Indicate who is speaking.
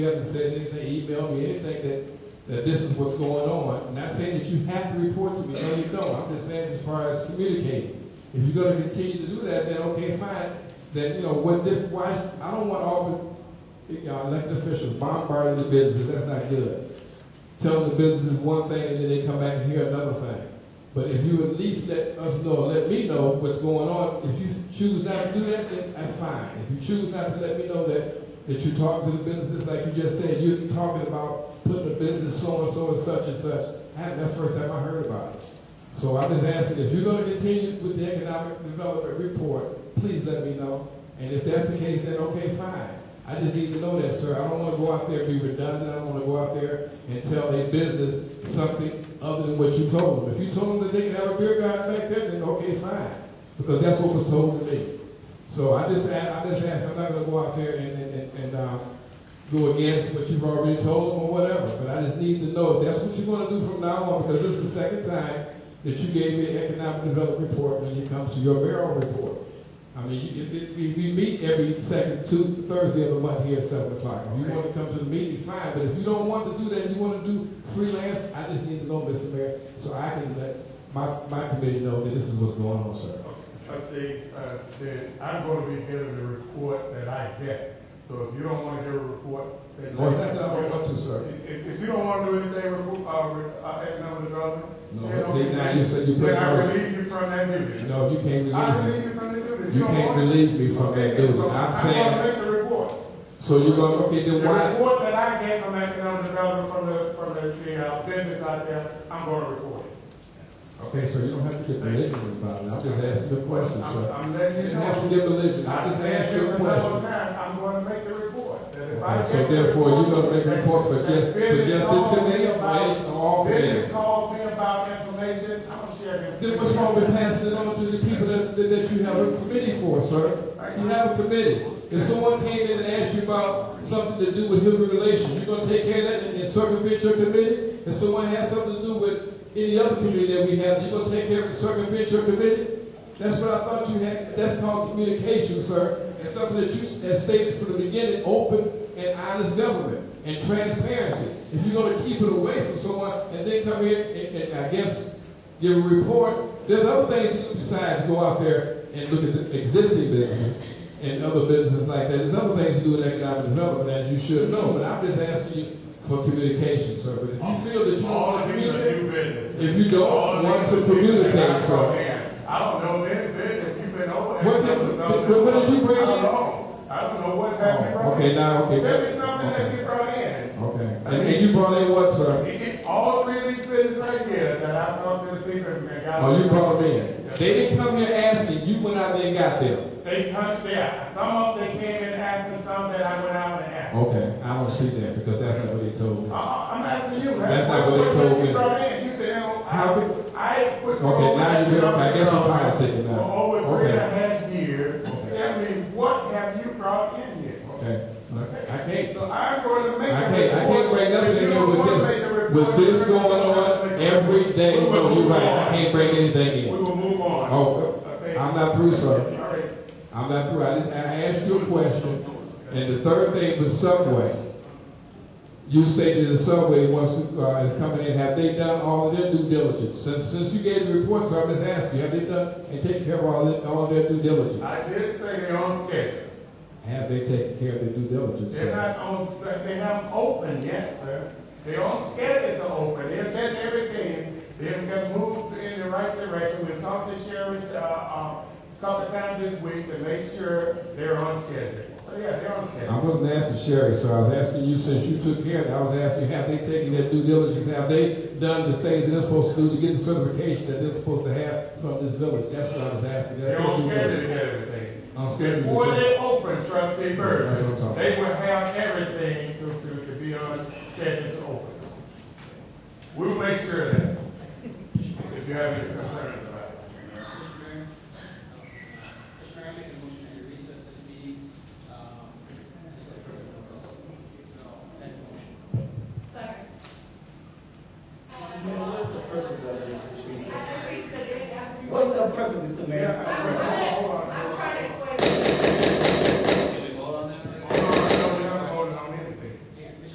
Speaker 1: You haven't said anything, emailed me anything that, that this is what's going on. Not saying that you have to report to me, no, you don't. I'm just saying as far as communicating. If you're gonna continue to do that, then okay, fine. Then, you know, what this, why, I don't want all the, you know, elected officials bombarding the businesses, that's not good. Tell them the business is one thing and then they come back and hear another thing. But if you at least let us know, let me know what's going on, if you choose not to do that, then that's fine. If you choose not to let me know that that you talk to the businesses, like you just said, you're talking about putting a business so and so and such and such. That- That's the first time I heard about it. So I'm just asking, if you're gonna continue with the economic development report, please let me know. And if that's the case, then okay, fine. I just need to know that, sir. I don't wanna go out there and be redundant. I don't wanna go out there and tell a business something other than what you told them. If you told them that they can have a beer garden back there, then okay, fine. Because that's what was told to me. So I just, a- I just ask, I'm not gonna go out there and, and, and, and, um, go against what you've already told them or whatever, but I just need to know if that's what you're gonna do from now on, because this is the second time that you gave me an economic development report when it comes to your mayoral report. I mean, you- it, it, we, we meet every second, two, Thursday of the month here at seven o'clock. If you wanna come to the meeting, fine, but if you don't want to do that, you wanna do freelance, I just need to know, Mr. Mayor, so I can let my, my committee know that this is what's going on, sir.
Speaker 2: Trustee, uh, then I'm going to be getting the report that I get. So if you don't want to hear a report, then.
Speaker 1: No, it's not that I don't want to, sir.
Speaker 2: If, if you don't want to do anything, report, uh, re- uh, economic development.
Speaker 1: No,
Speaker 2: then
Speaker 1: see,
Speaker 2: okay.
Speaker 1: now you said you put
Speaker 2: Then
Speaker 1: it
Speaker 2: I
Speaker 1: on.
Speaker 2: relieve you from that duty.
Speaker 1: No, you can't
Speaker 2: I
Speaker 1: relieve
Speaker 2: relieve
Speaker 1: me.
Speaker 2: you from that duty. If
Speaker 1: You
Speaker 2: don't
Speaker 1: can't
Speaker 2: want it-
Speaker 1: relieve me from that
Speaker 2: Okay,
Speaker 1: dude.
Speaker 2: so
Speaker 1: I'm
Speaker 2: I'm
Speaker 1: saying,
Speaker 2: going to make the report.
Speaker 1: so you're going, to okay,
Speaker 2: The
Speaker 1: then why?
Speaker 2: report that I get from economic development, from the, from the, the uh, business out there, I'm going to report it.
Speaker 1: Okay, so you don't have to get religion involved. I'm just asking you a question,
Speaker 2: I'm,
Speaker 1: sir.
Speaker 2: I'm
Speaker 1: You
Speaker 2: letting you
Speaker 1: didn't
Speaker 2: know.
Speaker 1: have to get religion. I
Speaker 2: I
Speaker 1: just
Speaker 2: said
Speaker 1: asked you
Speaker 2: this
Speaker 1: a
Speaker 2: a number of
Speaker 1: question.
Speaker 2: times, I'm going to make the report. That if I
Speaker 1: Okay, so
Speaker 2: get the
Speaker 1: therefore, you're
Speaker 2: report,
Speaker 1: going to make a
Speaker 2: that's-
Speaker 1: report for
Speaker 2: that's
Speaker 1: just, for just
Speaker 2: business
Speaker 1: this
Speaker 2: called me
Speaker 1: committee or
Speaker 2: about-
Speaker 1: any- all
Speaker 2: Business
Speaker 1: committees?
Speaker 2: called me about information, I'm gonna share it.
Speaker 1: Then what's wrong with passing it on to the people that, that that you have a committee for, sir? You have a committee. If someone came in and asked you about something to do with human relations, you're gonna take care of that and circumvent your committee? If someone has something to do with any other committee that we have, you're gonna take care of and circumvent your committee? That's what I thought you had, that's called communication, sir, and something that you had stated from the beginning, open and honest government and transparency. If you're gonna keep it away from someone and then come here and, and I guess give a report, there's other things you do besides go out there and look at the existing businesses and other businesses like that. There's other things you do in economic development as you should know, but I'm just asking you for communication, sir. But if you feel that you don't
Speaker 2: All
Speaker 1: wanna
Speaker 2: of these are
Speaker 1: communicate,
Speaker 2: new business.
Speaker 1: If you don't
Speaker 2: All
Speaker 1: want
Speaker 2: these
Speaker 1: to
Speaker 2: are new business.
Speaker 1: communicate, sir.
Speaker 2: I don't know this business, you've been over.
Speaker 1: What
Speaker 2: economic
Speaker 1: happened?
Speaker 2: development.
Speaker 1: What- what did you bring
Speaker 2: I don't
Speaker 1: in? Oh,
Speaker 2: know. I don't know what's happening.
Speaker 1: okay, now, okay.
Speaker 2: There is something that
Speaker 1: okay.
Speaker 2: you brought in.
Speaker 1: Okay. And, and you brought in what, sir?
Speaker 2: It- it- All three of these businesses right here that I talked to the people and got.
Speaker 1: Oh, you brought them in. They didn't come here asking. You went out there and got them.
Speaker 2: They come, yeah, some of them came in asking, some that I went out and asked.
Speaker 1: Okay. I don't see that because that's not what they told
Speaker 2: Uh,
Speaker 1: me.
Speaker 2: I'm asking you.
Speaker 1: That's not what they told me.
Speaker 2: You brought in, you been on.
Speaker 1: How we-
Speaker 2: I put. you
Speaker 1: Okay,
Speaker 2: on
Speaker 1: now you
Speaker 2: that
Speaker 1: been- I guess you're
Speaker 2: government
Speaker 1: politicking now.
Speaker 2: For over three
Speaker 1: Okay.
Speaker 2: and a half years.
Speaker 1: Okay.
Speaker 2: Tell me, what have you brought in here?
Speaker 1: Okay. I can't.
Speaker 2: So I'm going to make.
Speaker 1: I
Speaker 2: a
Speaker 1: can't, I
Speaker 2: report.
Speaker 1: can't bring nothing
Speaker 2: If you
Speaker 1: in here
Speaker 2: don't
Speaker 1: with
Speaker 2: wanna make a
Speaker 1: this,
Speaker 2: report,
Speaker 1: with this
Speaker 2: you're
Speaker 1: going
Speaker 2: not
Speaker 1: on
Speaker 2: gonna make a report.
Speaker 1: every day.
Speaker 2: We will
Speaker 1: No, you're
Speaker 2: move
Speaker 1: right.
Speaker 2: on.
Speaker 1: I can't bring anything
Speaker 2: We
Speaker 1: in.
Speaker 2: will move on.
Speaker 1: Oh,
Speaker 2: Okay.
Speaker 1: I'm not through, sir.
Speaker 2: All right.
Speaker 1: I'm not through. I just, I asked you a question, and the third thing was Subway. You stated the Subway wants to, uh, is coming in, have they done all of their due diligence? Since, since you gave the report, so I'm just asking, you, have they done, and taken care of all, of- all of their due diligence?
Speaker 2: I did say they're on schedule.
Speaker 1: Have they taken care of their due diligence?
Speaker 2: They're
Speaker 1: sir?
Speaker 2: not on, they haven't opened yet, sir. They're on schedule to open, they've done everything, they've got moved in the right direction, we talked to Sharon, uh, uh, a couple of times this week to make sure they're on schedule. So, yeah, they're on
Speaker 1: I
Speaker 2: schedule.
Speaker 1: wasn't asking Sherry, so I was asking you, since you took care of it, I was asking, have they taken their due diligence? Have they done the things that they're supposed to do to get the certification that they're supposed to have from this village? That's what I was asking. That's
Speaker 2: They're on
Speaker 1: what you did.
Speaker 2: schedule to get everything.
Speaker 1: On schedule.
Speaker 2: Before they open, trustee Burke,
Speaker 1: That's what I'm talking about.
Speaker 2: they will have everything to, to, to be on schedule to open. We will make sure of that, if you have any concern.